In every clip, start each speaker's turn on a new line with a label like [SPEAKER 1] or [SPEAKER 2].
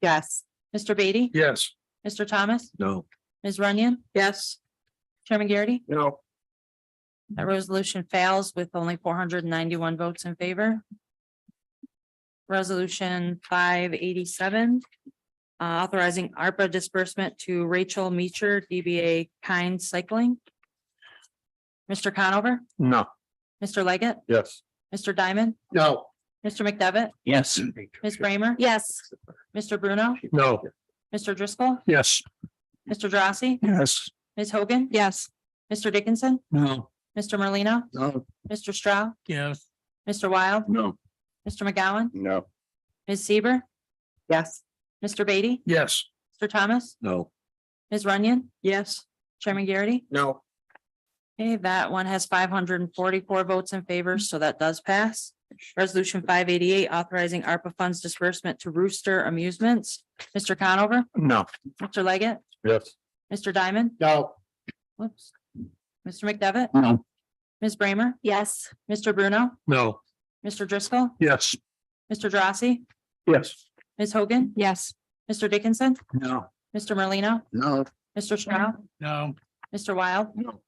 [SPEAKER 1] Yes.
[SPEAKER 2] Mr. Beatty?
[SPEAKER 3] Yes.
[SPEAKER 2] Mr. Thomas?
[SPEAKER 3] No.
[SPEAKER 2] Ms. Runyon?
[SPEAKER 1] Yes.
[SPEAKER 2] Chairman Garrity?
[SPEAKER 3] No.
[SPEAKER 2] That resolution fails with only four hundred and ninety-one votes in favor. Resolution five eighty-seven. uh, Authorizing ARPA disbursement to Rachel Meacher, DBA Kind Cycling. Mr. Conover?
[SPEAKER 3] No.
[SPEAKER 2] Mr. Leggett?
[SPEAKER 3] Yes.
[SPEAKER 2] Mr. Diamond?
[SPEAKER 3] No.
[SPEAKER 2] Mr. McDevitt?
[SPEAKER 3] Yes.
[SPEAKER 2] Ms. Bramer?
[SPEAKER 1] Yes.
[SPEAKER 2] Mr. Bruno?
[SPEAKER 3] No.
[SPEAKER 2] Mr. Driscoll?
[SPEAKER 3] Yes.
[SPEAKER 2] Mr. Drossy?
[SPEAKER 3] Yes.
[SPEAKER 2] Ms. Hogan?
[SPEAKER 1] Yes.
[SPEAKER 2] Mr. Dickinson?
[SPEAKER 3] No.
[SPEAKER 2] Mr. Merlino?
[SPEAKER 3] No.
[SPEAKER 2] Mr. Straugh?
[SPEAKER 3] Yes.
[SPEAKER 2] Mr. Wild?
[SPEAKER 3] No.
[SPEAKER 2] Mr. McGowan?
[SPEAKER 3] No.
[SPEAKER 2] Ms. Seaver?
[SPEAKER 1] Yes.
[SPEAKER 2] Mr. Beatty?
[SPEAKER 3] Yes.
[SPEAKER 2] Mr. Thomas?
[SPEAKER 3] No.
[SPEAKER 2] Ms. Runyon?
[SPEAKER 1] Yes.
[SPEAKER 2] Chairman Garrity?
[SPEAKER 3] No.
[SPEAKER 2] Okay, that one has five hundred and forty-four votes in favor, so that does pass. Resolution five eighty-eight, authorizing ARPA funds disbursement to Rooster Amusements. Mr. Conover?
[SPEAKER 3] No.
[SPEAKER 2] Mr. Leggett?
[SPEAKER 3] Yes.
[SPEAKER 2] Mr. Diamond?
[SPEAKER 3] No.
[SPEAKER 2] Whoops. Mr. McDevitt?
[SPEAKER 3] No.
[SPEAKER 2] Ms. Bramer?
[SPEAKER 1] Yes.
[SPEAKER 2] Mr. Bruno?
[SPEAKER 3] No.
[SPEAKER 2] Mr. Driscoll?
[SPEAKER 3] Yes.
[SPEAKER 2] Mr. Drossy?
[SPEAKER 3] Yes.
[SPEAKER 2] Ms. Hogan?
[SPEAKER 1] Yes.
[SPEAKER 2] Mr. Dickinson?
[SPEAKER 3] No.
[SPEAKER 2] Mr. Merlino?
[SPEAKER 3] No.
[SPEAKER 2] Mr. Straugh?
[SPEAKER 3] No.
[SPEAKER 2] Mr. Wild?
[SPEAKER 3] No.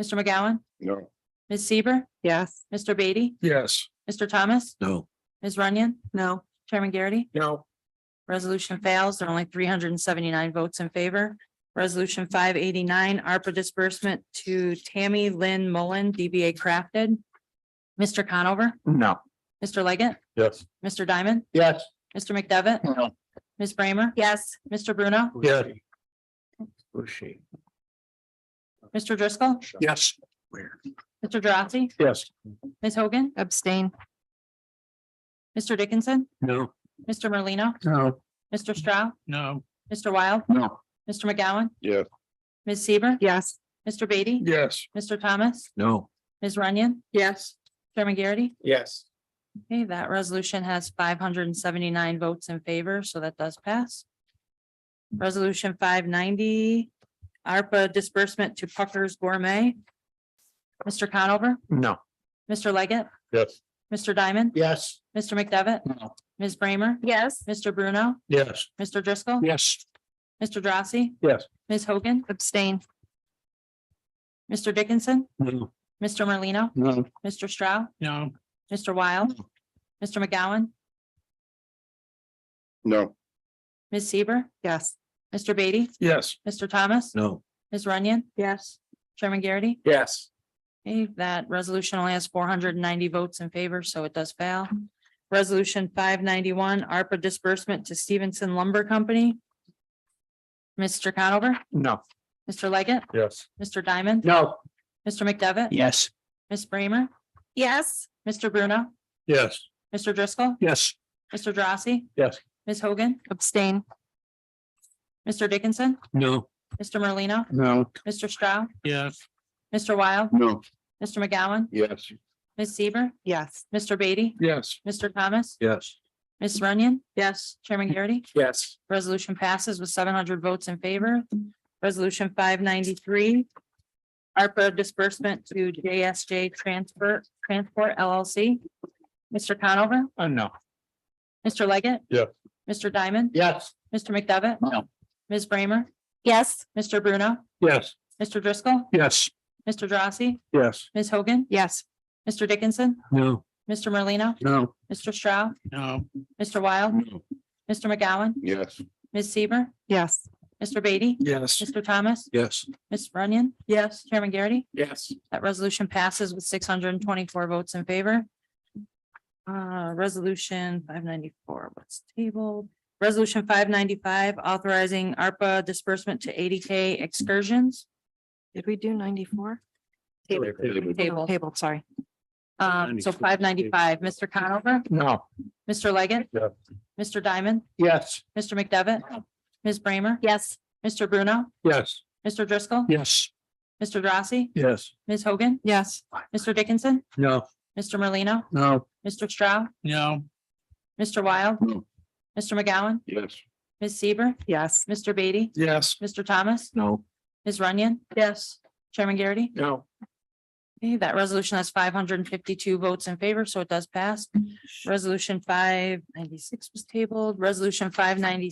[SPEAKER 2] Mr. McGowan?
[SPEAKER 3] No.
[SPEAKER 2] Ms. Seaver?
[SPEAKER 1] Yes.
[SPEAKER 2] Mr. Beatty?
[SPEAKER 3] Yes.
[SPEAKER 2] Mr. Thomas?
[SPEAKER 3] No.
[SPEAKER 2] Ms. Runyon?
[SPEAKER 1] No.
[SPEAKER 2] Chairman Garrity?
[SPEAKER 3] No.
[SPEAKER 2] Resolution fails. There are only three hundred and seventy-nine votes in favor. Resolution five eighty-nine, ARPA disbursement to Tammy Lynn Mullen, DBA Crafted. Mr. Conover?
[SPEAKER 3] No.
[SPEAKER 2] Mr. Leggett?
[SPEAKER 3] Yes.
[SPEAKER 2] Mr. Diamond?
[SPEAKER 3] Yes.
[SPEAKER 2] Mr. McDevitt?
[SPEAKER 3] No.
[SPEAKER 2] Ms. Bramer?
[SPEAKER 1] Yes.
[SPEAKER 2] Mr. Bruno?
[SPEAKER 3] Yeah. Bushy.
[SPEAKER 2] Mr. Driscoll?
[SPEAKER 3] Yes. Where?
[SPEAKER 2] Mr. Drossy?
[SPEAKER 3] Yes.
[SPEAKER 2] Ms. Hogan?
[SPEAKER 1] Abstain.
[SPEAKER 2] Mr. Dickinson?
[SPEAKER 3] No.
[SPEAKER 2] Mr. Merlino?
[SPEAKER 3] No.
[SPEAKER 2] Mr. Straugh?
[SPEAKER 3] No.
[SPEAKER 2] Mr. Wild?
[SPEAKER 3] No.
[SPEAKER 2] Mr. McGowan?
[SPEAKER 3] Yes.
[SPEAKER 2] Ms. Seaver?
[SPEAKER 1] Yes.
[SPEAKER 2] Mr. Beatty?
[SPEAKER 3] Yes.
[SPEAKER 2] Mr. Thomas?
[SPEAKER 3] No.
[SPEAKER 2] Ms. Runyon?
[SPEAKER 1] Yes.
[SPEAKER 2] Chairman Garrity?
[SPEAKER 3] Yes.
[SPEAKER 2] Okay, that resolution has five hundred and seventy-nine votes in favor, so that does pass. Resolution five ninety, ARPA disbursement to Puckers Gourmet. Mr. Conover?
[SPEAKER 3] No.
[SPEAKER 2] Mr. Leggett?
[SPEAKER 3] Yes.
[SPEAKER 2] Mr. Diamond?
[SPEAKER 3] Yes.
[SPEAKER 2] Mr. McDevitt?
[SPEAKER 3] No.
[SPEAKER 2] Ms. Bramer?
[SPEAKER 1] Yes.
[SPEAKER 2] Mr. Bruno?
[SPEAKER 3] Yes.
[SPEAKER 2] Mr. Driscoll?
[SPEAKER 3] Yes.
[SPEAKER 2] Mr. Drossy?
[SPEAKER 3] Yes.
[SPEAKER 2] Ms. Hogan?
[SPEAKER 1] Abstain.
[SPEAKER 2] Mr. Dickinson?
[SPEAKER 3] No.
[SPEAKER 2] Mr. Merlino?
[SPEAKER 3] No.
[SPEAKER 2] Mr. Straugh?
[SPEAKER 3] No.
[SPEAKER 2] Mr. Wild? Mr. McGowan?
[SPEAKER 3] No.
[SPEAKER 2] Ms. Seaver?
[SPEAKER 1] Yes.
[SPEAKER 2] Mr. Beatty?
[SPEAKER 3] Yes.
[SPEAKER 2] Mr. Thomas?
[SPEAKER 3] No.
[SPEAKER 2] Ms. Runyon?
[SPEAKER 1] Yes.
[SPEAKER 2] Chairman Garrity?
[SPEAKER 3] Yes.
[SPEAKER 2] Okay, that resolution only has four hundred and ninety votes in favor, so it does fail. Resolution five ninety-one, ARPA disbursement to Stevenson Lumber Company. Mr. Conover,
[SPEAKER 3] No.
[SPEAKER 2] Mr. Leggett,
[SPEAKER 3] Yes.
[SPEAKER 2] Mr. Diamond,
[SPEAKER 3] No.
[SPEAKER 2] Mr. McDevitt,
[SPEAKER 3] Yes.
[SPEAKER 2] Ms. Bramer,
[SPEAKER 1] Yes.
[SPEAKER 2] Mr. Bruno,
[SPEAKER 3] Yes.
[SPEAKER 2] Mr. Driscoll,
[SPEAKER 3] Yes.
[SPEAKER 2] Mr. Drossy,
[SPEAKER 3] Yes.
[SPEAKER 2] Ms. Hogan,
[SPEAKER 1] Abstain.
[SPEAKER 2] Mr. Dickinson,
[SPEAKER 3] No.
[SPEAKER 2] Mr. Merlino,
[SPEAKER 3] No.
[SPEAKER 2] Mr. Straugh,
[SPEAKER 3] Yes.
[SPEAKER 2] Mr. Wild,
[SPEAKER 3] No.
[SPEAKER 2] Mr. McGowan,
[SPEAKER 3] Yes.
[SPEAKER 2] Ms. Seaver,
[SPEAKER 1] Yes.
[SPEAKER 2] Mr. Beatty,
[SPEAKER 3] Yes.
[SPEAKER 2] Mr. Thomas,
[SPEAKER 3] Yes.
[SPEAKER 2] Ms. Runyon,
[SPEAKER 1] Yes.
[SPEAKER 2] Chairman Garrity.
[SPEAKER 3] Yes.
[SPEAKER 2] Resolution passes with seven hundred votes in favor. Resolution five ninety-three. ARPA disbursement to JSJ Transport, Transport LLC. Mr. Conover,
[SPEAKER 3] Uh, no.
[SPEAKER 2] Mr. Leggett.
[SPEAKER 3] Yeah.
[SPEAKER 2] Mr. Diamond,
[SPEAKER 3] Yes.
[SPEAKER 2] Mr. McDevitt,
[SPEAKER 3] No.
[SPEAKER 2] Ms. Bramer,
[SPEAKER 1] Yes.
[SPEAKER 2] Mr. Bruno,
[SPEAKER 3] Yes.
[SPEAKER 2] Mr. Driscoll,
[SPEAKER 3] Yes.
[SPEAKER 2] Mr. Drossy,
[SPEAKER 3] Yes.
[SPEAKER 2] Ms. Hogan,
[SPEAKER 1] Yes.
[SPEAKER 2] Mr. Dickinson,
[SPEAKER 3] No.
[SPEAKER 2] Mr. Merlino,
[SPEAKER 3] No.
[SPEAKER 2] Mr. Straugh,
[SPEAKER 3] No.
[SPEAKER 2] Mr. Wild, Mr. McGowan,
[SPEAKER 3] Yes.
[SPEAKER 2] Ms. Seaver,
[SPEAKER 1] Yes.
[SPEAKER 2] Mr. Beatty,
[SPEAKER 3] Yes.
[SPEAKER 2] Mr. Thomas,
[SPEAKER 3] Yes.
[SPEAKER 2] Ms. Runyon,
[SPEAKER 1] Yes.
[SPEAKER 2] Chairman Garrity.
[SPEAKER 3] Yes.
[SPEAKER 2] That resolution passes with six hundred and twenty-four votes in favor. Uh, resolution five ninety-four, what's tabled? Resolution five ninety-five, authorizing ARPA disbursement to eighty K excursions.
[SPEAKER 1] Did we do ninety-four?
[SPEAKER 2] Table.
[SPEAKER 1] Table, sorry.
[SPEAKER 2] Um, so
[SPEAKER 3] 594.
[SPEAKER 2] five ninety-five, Mr. Conover,
[SPEAKER 3] No.
[SPEAKER 2] Mr. Leggett.
[SPEAKER 3] Yeah.
[SPEAKER 2] Mr. Diamond,
[SPEAKER 3] Yes.
[SPEAKER 2] Mr. McDevitt, Ms. Bramer,
[SPEAKER 1] Yes.
[SPEAKER 2] Mr. Bruno,
[SPEAKER 3] Yes.
[SPEAKER 2] Mr. Driscoll,
[SPEAKER 3] Yes.
[SPEAKER 2] Mr. Drossy,
[SPEAKER 3] Yes.
[SPEAKER 2] Ms. Hogan,
[SPEAKER 1] Yes.
[SPEAKER 2] Mr. Dickinson,
[SPEAKER 3] No.
[SPEAKER 2] Mr. Merlino,
[SPEAKER 3] No.
[SPEAKER 2] Mr. Stroud,
[SPEAKER 3] No.
[SPEAKER 2] Mr. Wild,
[SPEAKER 3] No.
[SPEAKER 2] Mr. McGowan,
[SPEAKER 3] Yes.
[SPEAKER 2] Ms. Seaver,
[SPEAKER 1] Yes.
[SPEAKER 2] Mr. Beatty,
[SPEAKER 3] Yes.
[SPEAKER 2] Mr. Thomas,
[SPEAKER 3] No.
[SPEAKER 2] Ms. Runyon,
[SPEAKER 1] Yes.
[SPEAKER 2] Chairman Garrity.
[SPEAKER 3] No.
[SPEAKER 2] Okay, that resolution has five hundred and fifty-two votes in favor,
[SPEAKER 1] Mm-hmm.
[SPEAKER 2] so it does pass. Resolution five ninety-six was tabled. Resolution five ninety